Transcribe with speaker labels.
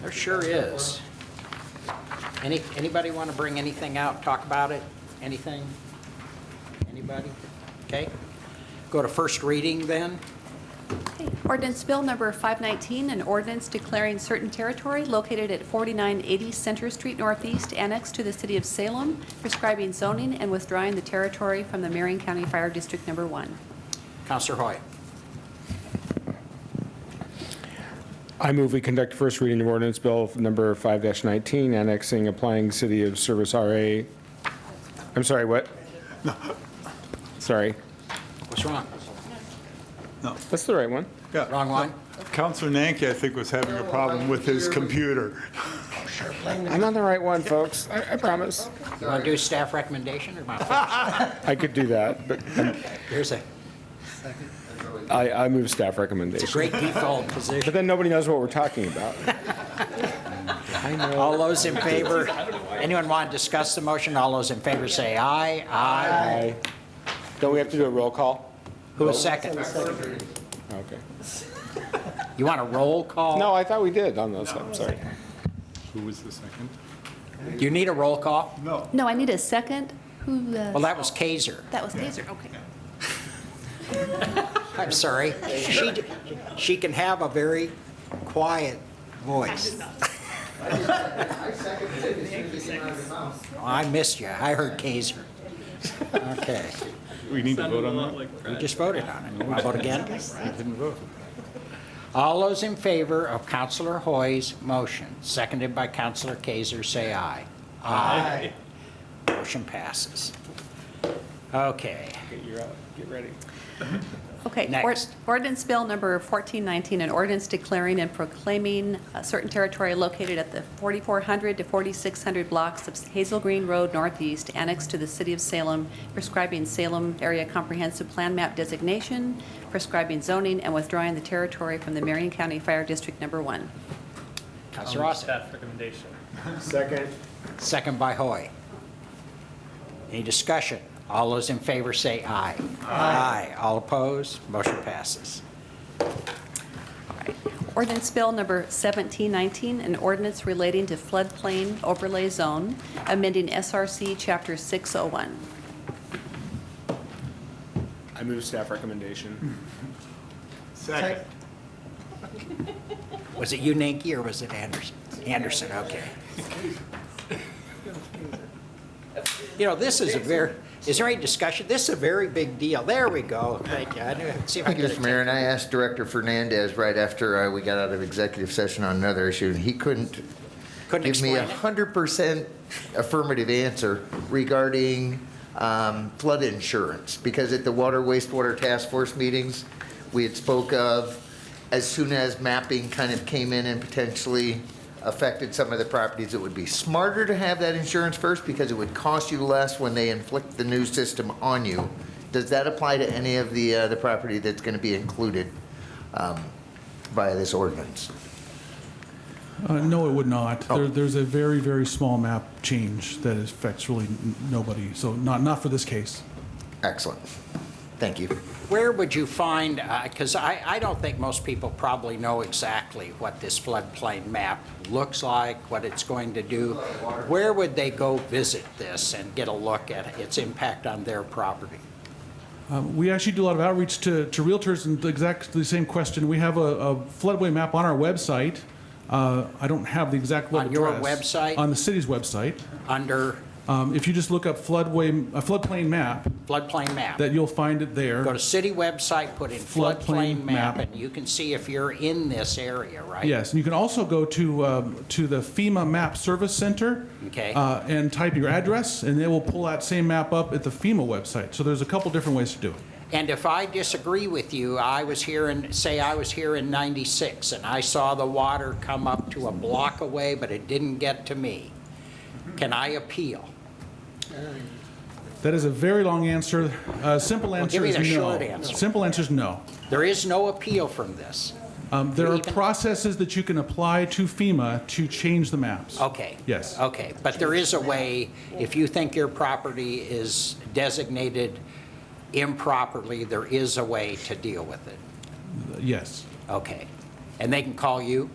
Speaker 1: There sure is. Any, anybody want to bring anything out, talk about it? Anything? Anybody? Okay. Go to first reading then.
Speaker 2: Okay, Ordinance Bill Number 519, an ordinance declaring certain territory located at 4980 Center Street Northeast annexed to the city of Salem, prescribing zoning and withdrawing the territory from the Marion County Fire District Number 1.
Speaker 1: Counselor Hoy.
Speaker 3: I move we conduct first reading of ordinance bill number 5-19, annexing applying City of Service RA, I'm sorry, what? Sorry,
Speaker 1: What's wrong?
Speaker 3: that's the right one.
Speaker 4: Yeah.
Speaker 1: Wrong one?
Speaker 4: Counselor Nanki, I think, was having a problem with his computer.
Speaker 3: I'm on the right one, folks, I I promise.
Speaker 1: You want to do staff recommendation or not?
Speaker 3: I could do that, but
Speaker 1: Here's a
Speaker 3: I, I move staff recommendation.
Speaker 1: great default
Speaker 3: But
Speaker 1: position.
Speaker 3: then nobody knows what we're talking about. I know.
Speaker 1: All those in favor, anyone want to discuss the motion? All those in favor say aye. Aye.
Speaker 3: Aye. Don't we have to do a roll call?
Speaker 1: Who is second?
Speaker 3: Okay.
Speaker 1: You want a roll call?
Speaker 3: No, I thought we did on those, I'm sorry.
Speaker 4: Who was the second?
Speaker 1: You need a roll call?
Speaker 4: No.
Speaker 2: No, I need a second. Who, uh,
Speaker 1: Well, that was Kaiser.
Speaker 2: that was Taser, okay.
Speaker 1: I'm sorry. She, d- she can have a very quiet voice. I missed you. I heard Kaiser. Okay.
Speaker 4: We need to vote on that?
Speaker 1: We just voted on it. Want to vote again? Didn't vote. All those in favor of Counselor Hoy's motion, seconded by Counselor Kaiser, say aye. Aye. Motion passes. Okay.
Speaker 2: Okay. or-
Speaker 1: Next.
Speaker 2: Ordinance Bill Number 1419, an ordinance declaring and proclaiming a certain territory located at the 4400 to 4600 blocks of Hazel Green Road Northeast annexed to the city of Salem, prescribing Salem Area Comprehensive Plan Map designation, prescribing zoning, and withdrawing the territory from the Marion County Fire District Number 1.
Speaker 1: Counselor Ross,
Speaker 5: Staff recommendation.
Speaker 1: second by Hoy. Any discussion? All those in favor say aye. Aye. All opposed? Motion passes.
Speaker 2: Ordinance Bill Number 1719, an ordinance relating to floodplain overlay zone, amending SRC Chapter 601.
Speaker 3: I move staff recommendation.
Speaker 4: Second.
Speaker 1: Was it you, Nanki, or was it Anderson? Anderson, okay. You know, this is a very, is there any discussion? This is a very big deal. There we go. Thank you. I knew, see if I
Speaker 6: Thank you,
Speaker 1: could.
Speaker 6: Mr. Mayor, and I asked Director Fernandez right after uh, we got out of executive session on another issue, and he couldn't
Speaker 1: Couldn't
Speaker 6: give
Speaker 1: explain
Speaker 6: me a
Speaker 1: it.
Speaker 6: 100% affirmative answer regarding um, flood insurance, because at the Water Wastewater Task Force meetings, we had spoke of, as soon as mapping kind of came in and potentially affected some of the properties, it would be smarter to have that insurance first, because it would cost you less when they inflict the new system on you. Does that apply to any of the, uh, the property that's going to be included um, by this ordinance?
Speaker 7: Uh, No, it would not.
Speaker 1: Oh.
Speaker 7: There- There's a very, very small map change that affects really n- nobody, so not, not for this case.
Speaker 6: Excellent. Thank you.
Speaker 1: Where would you find, because I, I don't think most people probably know exactly what this floodplain map looks like, what it's going to do. Where would they go visit this and get a look at its impact on their property?
Speaker 7: Um, We actually do a lot of outreach to, to realtors and the exact the same question. We have a a floodway map on our website. Uh, I don't have the exact web
Speaker 1: On your
Speaker 7: address.
Speaker 1: website?
Speaker 7: On the city's website.
Speaker 1: Under
Speaker 7: Um, If you just look up floodway, uh, floodplain map,
Speaker 1: floodplain map?
Speaker 7: that you'll find it there.
Speaker 1: Go to city website, put in
Speaker 7: Floodplain
Speaker 1: floodplain map,
Speaker 7: map.
Speaker 1: and you can see if you're in this area, right?
Speaker 7: Yes, and you can also go to, um, to the FEMA Map Service Center.
Speaker 1: Okay.
Speaker 7: uh, And type your address, and they will pull that same map up at the FEMA website. So there's a couple different ways to do it.
Speaker 1: And if I disagree with you, I was here in, say I was here in 96, and I saw the water come up to a block away, but it didn't get to me, can I appeal?
Speaker 7: That is a very long answer. Uh, Simple
Speaker 1: give
Speaker 7: answer
Speaker 1: me
Speaker 7: is no.
Speaker 1: the short answer.
Speaker 7: Simple answer is no.
Speaker 1: There is no appeal from this.
Speaker 7: Um, There are
Speaker 1: Even-
Speaker 7: processes that you can apply to FEMA to change the maps.
Speaker 1: Okay.
Speaker 7: Yes.
Speaker 1: Okay, but there is a way, if you think your property is designated improperly, there is a way to deal with it.
Speaker 7: Yes.
Speaker 1: Okay. And they can call you?